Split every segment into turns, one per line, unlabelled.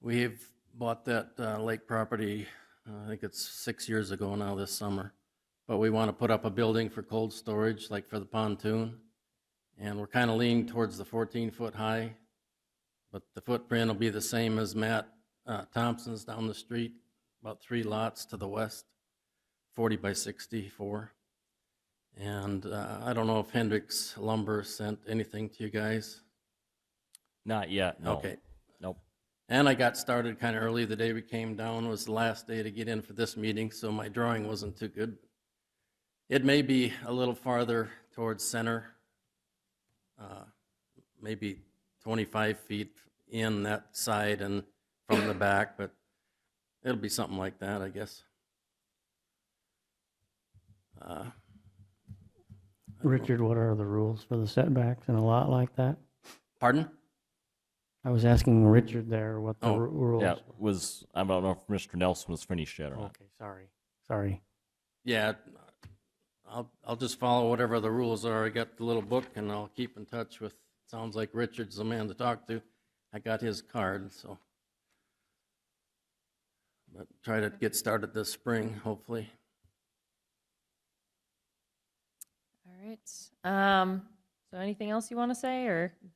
We have bought that uh, lake property, uh, I think it's six years ago now this summer. But we want to put up a building for cold storage, like for the pontoon. And we're kind of leaning towards the 14-foot high, but the footprint will be the same as Matt uh, Thompson's down the street, about three lots to the west, 40 by 64. And uh, I don't know if Hendricks Lumber sent anything to you guys?
Not yet, no.
Okay.
Nope.
And I got started kind of early. The day we came down was the last day to get in for this meeting, so my drawing wasn't too good. It may be a little farther towards center, uh, maybe 25 feet in that side and from the back, but it'll be something like that, I guess. Uh,
Richard, what are the rules for the setbacks in a lot like that?
Pardon?
I was asking Richard there what the
Oh,
ru- rules.
Yeah, was, I don't know if Mr. Nelson was finished yet or not.
Okay, sorry, sorry.
Yeah, I'll, I'll just follow whatever the rules are. I got the little book and I'll keep in touch with, sounds like Richard's the man to talk to. I got his card, so. But try to get started this spring, hopefully.
All right. Um, so anything else you want to say or?
Uh,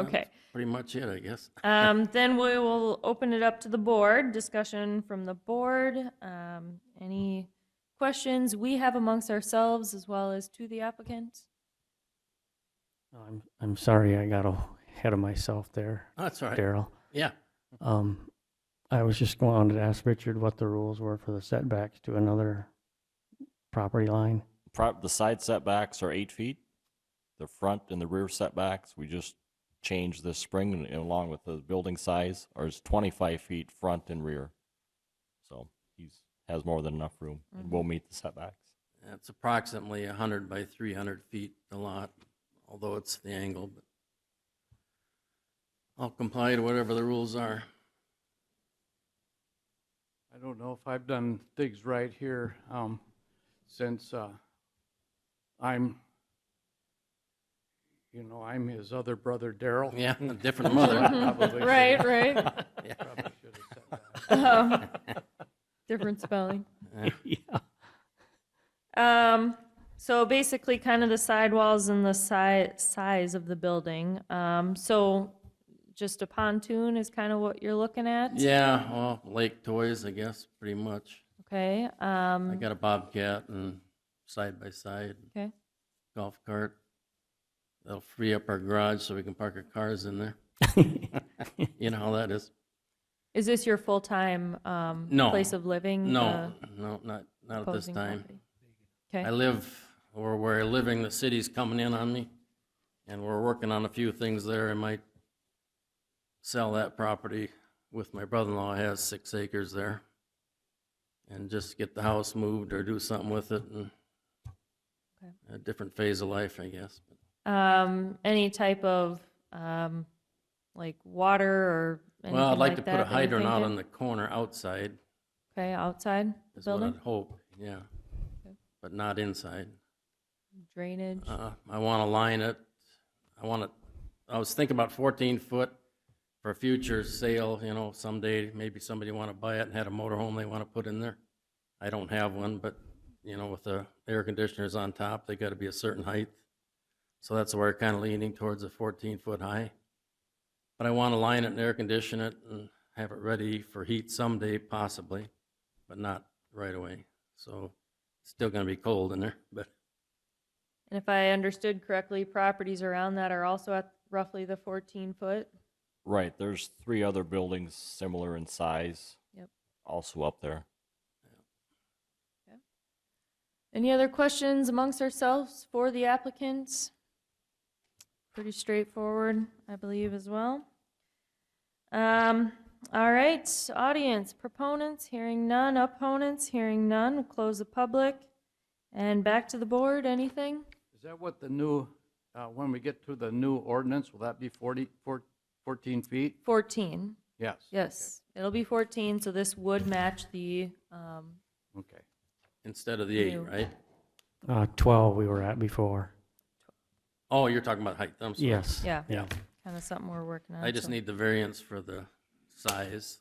Okay.
Pretty much it, I guess.
Um, then we will open it up to the board, discussion from the board. Um, any questions we have amongst ourselves as well as to the applicant?
I'm, I'm sorry I got ahead of myself there,
That's all right.
Daryl.
Yeah,
Um, I was just going to ask Richard what the rules were for the setbacks to another property line.
Pro- The side setbacks are eight feet. The front and the rear setbacks, we just changed this spring and- and along with the building size, are is 25 feet front and rear. So he's, has more than enough room and will meet the setbacks.
it's approximately 100 by 300 feet, a lot, although it's the angle, but. I'll comply to whatever the rules are.
I don't know if I've done things right here, um, since, uh, I'm, you know, I'm his other brother, Daryl.
Yeah, a different mother.
Probably
Right, right.
Yeah.
Probably should have said that.
Um, different spelling.
Yeah.
Um, so basically kind of the sidewalls and the si- size of the building. Um, so just a pontoon is kind of what you're looking at?
Yeah, well, lake toys, I guess, pretty much.
Okay,
I
um,
got a Bobcat and side by side
okay.
golf cart. That'll free up our garage so we can park our cars in there. You know how that is.
Is this your full-time, um,
No.
place of living?
No,
the
no, not not at this
opposing
time.
property?
I
Okay,
live, or where I living, the city's coming in on me, and we're working on a few things there. I might sell that property with my brother-in-law, He has six acres there, and just get the house moved or do something with it, and
Okay.
a different phase of life, I guess.
um, any type of, um, like water or anything like that?
Well, I'd like to put a
that you're
hydrant out on
thinking?
the corner outside,
Okay, outside the
is what I'd
building,
hope, yeah,
Okay.
but not inside.
drainage?
Uh, I want to line it, I want to, I was thinking about 14 foot for future sale, you know, someday, maybe somebody want to buy it and had a motorhome they want to put in there. I don't have one, but, you know, with the air conditioners on top, they got to be a certain height. So that's where kind of leaning towards a 14 foot high. But I want to line it and air condition it and have it ready for heat someday possibly, but not right away. So it's still going to be cold in there, but
And if I understood correctly, properties around that are also at roughly the 14-foot?
Right, there's three other buildings similar in size.
Yep.
Also up there.
Any other questions amongst ourselves for the applicants? Pretty straightforward, I believe, as well. Um, all right, audience, proponents, hearing none, opponents, hearing none, We'll close the public. And back to the board, anything?
Is that what the new, uh, when we get to the new ordinance, will that be 40 four- 14 feet?
14,
Yes.
yes, it'll be 14, so this would match the, um,
Okay.
Instead of the eight,
New.
right?
Uh, twelve we were at before.
Oh, you're talking about height, I'm sorry.
Yes.
yeah,
Yeah.
kind of something we're working on.
I just
so-
need the variance for the size,